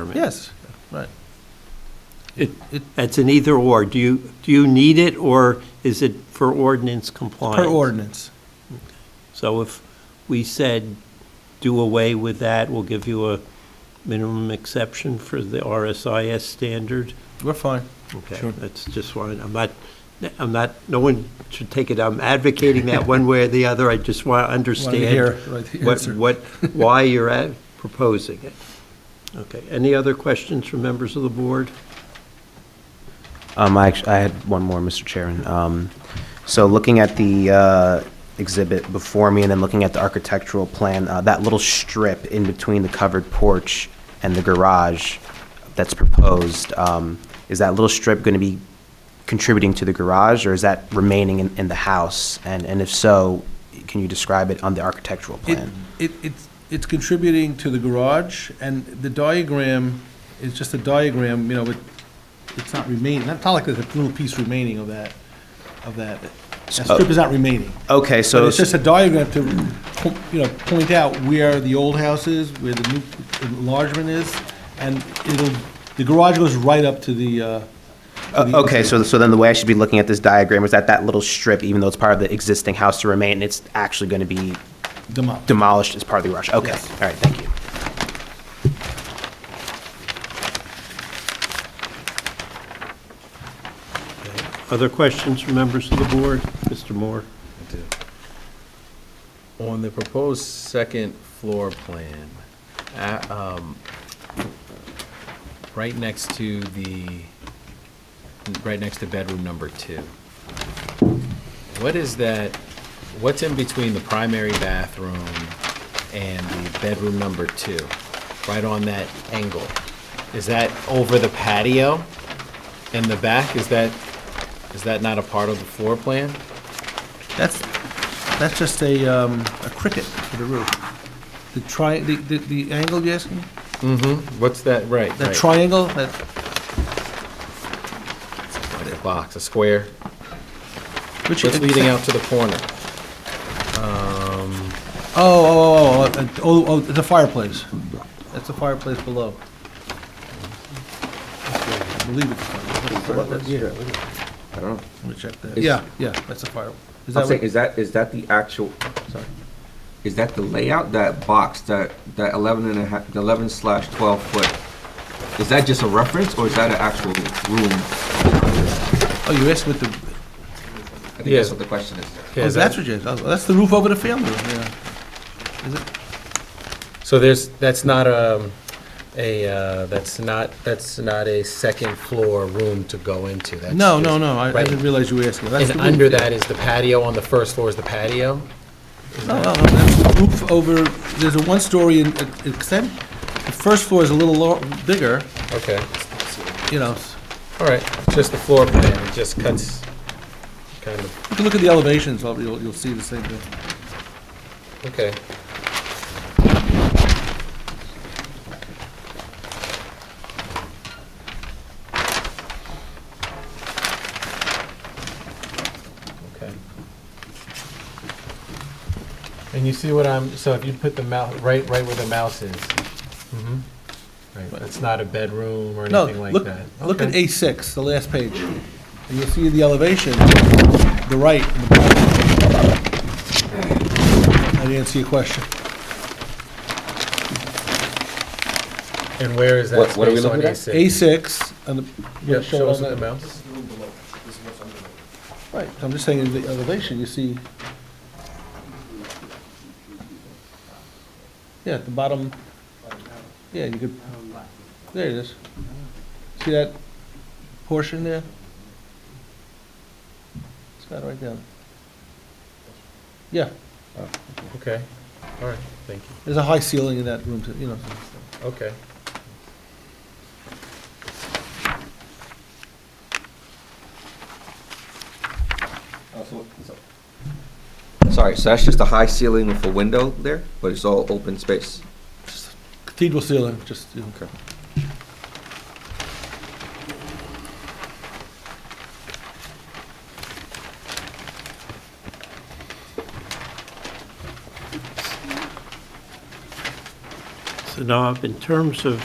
permit. Yes, right. It- It- It's an either-or. Do you, do you need it, or is it for ordinance compliance? Per ordinance. So if we said, do away with that, we'll give you a minimum exception for the RSIS standard? We're fine. Okay, that's just one, I'm not, I'm not, no one should take it, I'm advocating that one way or the other, I just want to Want to hear, understand right, the what, answer. what, why you're at- proposing it. Okay, any other questions from members of the board? Um, I actually, I had one more, Mr. Chairman. Um, so looking at the, uh, exhibit before me and then looking at the architectural plan, uh, that little strip in between the covered porch and the garage that's proposed, um, is that little strip gonna be contributing to the garage or is that remaining in, in the house? And, and if so, can you describe it on the architectural It, plan? it, it's, it's contributing to the garage, and the diagram is just a diagram, you know, but it's not remaining, not not like there's a little piece remaining of that, of that. That strip is not remaining. Okay, So so, it's just a diagram to, po- you know, point out where the old house is, where the new enlargement is, and it'll, the garage goes right up to the, uh. to the- o- okay, so, so then the way I should be looking at this diagram is that that little strip, even though it's part of the existing house to remain, it's actually gonna be Demo- demolished as part of the garage. Okay, Yes. all right, thank you. Other questions from members of the board? Mr. Moore? On the proposed second floor plan, a- um, right next to the, right next to bedroom number two, what is that, what's in between the primary bathroom and the bedroom number two? Right on that angle? Is that over the patio in the back? Is that, is that not a part of the floor plan? That's, that's just a, um, a cricket for the roof. The tri, the, the, the angle you're asking? What's that, right? That right. triangle, that, Like a box, a square, which just is leading out to the corner. Oh, oh, oh, oh, uh, oh, oh, the fireplace. That's the fireplace below. I believe it's. I don't know. Let me check that. Is- Yeah, yeah, that's the fire. Is I'm that saying, what? is that, is that the actual, Sorry. is that the layout, that box, that, that eleven and a half, the eleven slash twelve foot? Is that just a reference, or is that an actual room? Oh, you asked with the, I think that's Yeah. what the question is. oh, that's what you asked. Oh, That's the roof over the family room, yeah. So there's, that's not um, a, uh, that's not, that's not a second floor room to go into. That's No, just- no, no, I I Right. didn't realize you were asking. That's And the roof, under yeah. that is the patio, on the first floor is the patio? No, no, no, that's the roof over, there's a one-story in- extent. The first floor is a little lo- bigger, Okay, you know. s- all right, just the floor plan, it just cuts, kind of, You can look at the elevations, I'll- you'll, you'll see the same thing. okay. Okay. And you see what I'm, so if you put the mouse, right, right where the mouse is. Mm-hmm. Right, it's not a bedroom or No, anything like look, that. look at Okay. A6, the last page. And you'll see the elevation, the right. and the bottom. I didn't see a question. And where is that What- what are we space on looking at? A6? A6, and the. show Yeah, it show on us with that. the mouse. Right, I'm just saying in the elevation, you see. Yeah, at the bottom, yeah, you could, there it is. See that portion there? It's got it right down. Yeah, Okay, all right, thank you, there's a high ceiling in that room, too, you know. okay. Sorry, so that's just a high ceiling with a window there, but it's all open space? Cathedral ceiling, just, you know. Okay. So now, in terms of